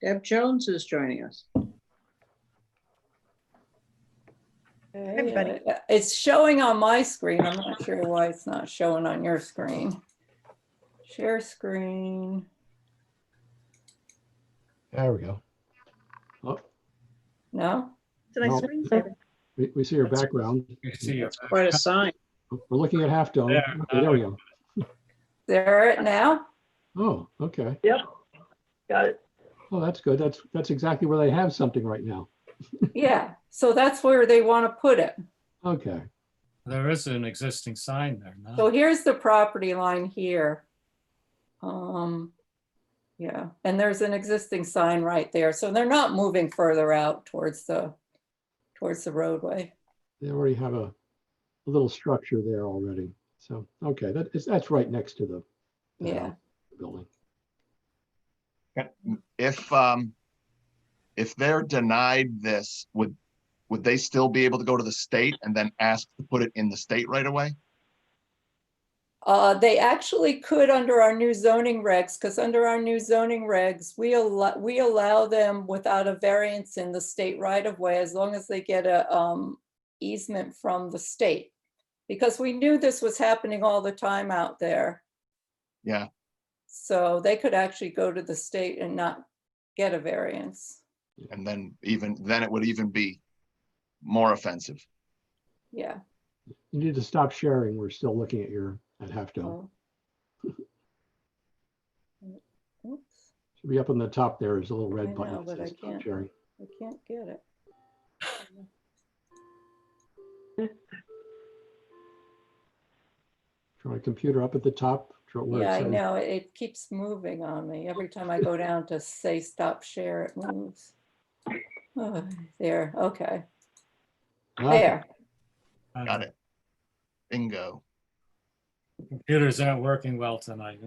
Deb Jones is joining us. everybody. Uh, It's showing on my screen. I'm not sure why it's not showing on your screen. Share screen. There we go. No? Did I No. screen share? We, we see your background. You see uh, you. Quite a sign. We're looking at half dome. There. Okay, There we go. There it now? uh, Oh, okay. Got it. Well, that's good. That's, that's exactly where they have something right now. Yeah. So that's where they want to put it. Okay. There is an existing sign there now. So here's the property line here. Um, yeah, and there's an existing sign right there. So they're not moving further out towards the, towards the roadway. They already have a, a little structure there already. So, okay, that is, that's right next to the. the Yeah. house Building. If, um, if they're denied this, would, would they still be able to go to the state and then ask to put it in the state right away? Uh, they actually could under our new zoning regs, because under our new zoning regs, we allow, we allow them without a variance in the state right of way as long as they get a, um, easement from the state. Because we knew this was happening all the time out there. Yeah. So they could actually go to the state and not get a variance. And then even, then it would even be more offensive. Yeah. You need to stop sharing. We're still looking at your, at half dome. well. Oops, Should be up on the top there is a little I red button. know, that but I says stop can't- Sharing. I can't get it. Try computer up at the top. draw where it Yeah, I says- know. It it keeps moving on me. Every time I go down to say stop share, it moves. Oh, There, okay, Ah, there. Uh, Got it. Bingo. Computers aren't working well tonight.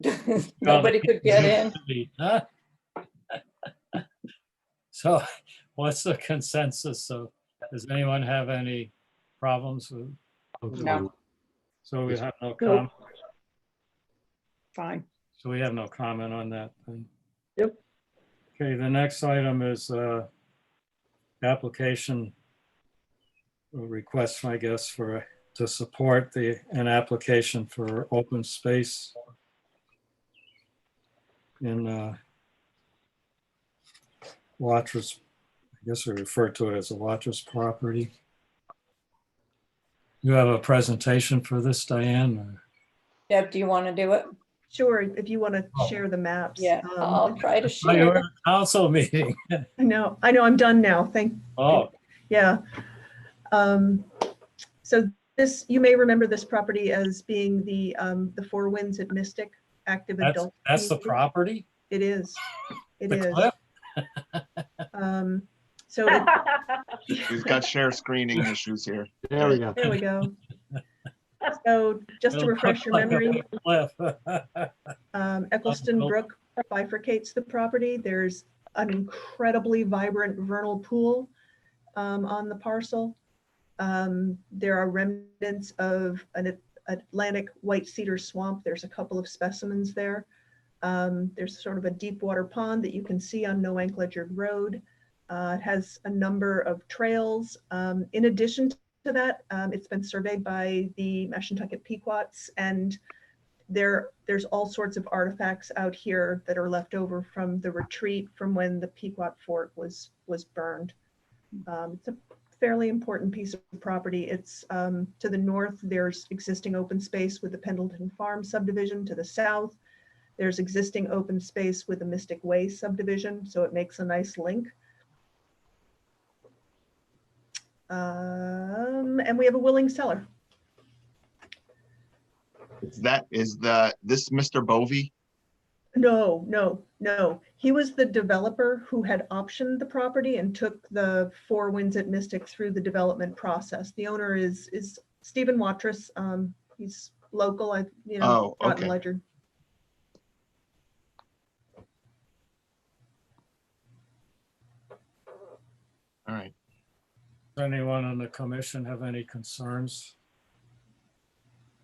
Nobody could get in. Huh? So what's the consensus? So does anyone have any problems with, okay. No. so we have no Nope. comment, Fine. so we have no comment on that thing? Yep. Okay, the next item is uh application or request, I guess, for, to support the, an application for open space in uh Watra's, I guess we refer to it as a Watra's property. You have a presentation for this, Diane? or- Deb, do you want to do it? Sure, if you want to share the maps. Yeah, um, I'll try to Oh, you're share. at a Council meeting. I know, I know, I'm done now, thank, Oh, yeah. Um, So this, you may remember this property as being the, um, the Four Winds at Mystic Active that's, Adult. that's the community. property? It is, it The is. cliff? Um, So it- We've got share screening issues here. There we go. There we go. So just to It'll refresh your look like a memory, cliff. um, Eccleston Well- Brook bifurcates the property. There's an incredibly vibrant vernal pool um, on the parcel. Um, There are remnants of an At- Atlantic white cedar swamp. There's a couple of specimens there. Um, There's sort of a deep water pond that you can see on Noank Ledger Road. Uh, It has a number of trails. Um, In addition to that, um, it's been surveyed by the Mashantucket Pequots and there, there's all sorts of artifacts out here that are left over from the retreat from when the Pequot Fort was, was burned. Um, It's a fairly important piece of property. It's um, to the north, there's existing open space with the Pendleton Farm subdivision. To the south, there's existing open space with the Mystic Way subdivision, so it makes a nice link. Um, And we have a willing seller. Is that, is the, this Mr. Bovee? No, no, no. He was the developer who had optioned the property and took the Four Winds at Mystic through the development process. The owner is, is Stephen Watrous. Um, he's local, I, you know, Oh, Groton okay. Ledger. All right. Does anyone on the commission have any concerns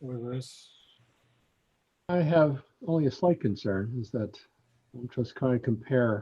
with this? I have only a slight concern is that I'm just kind of um, compare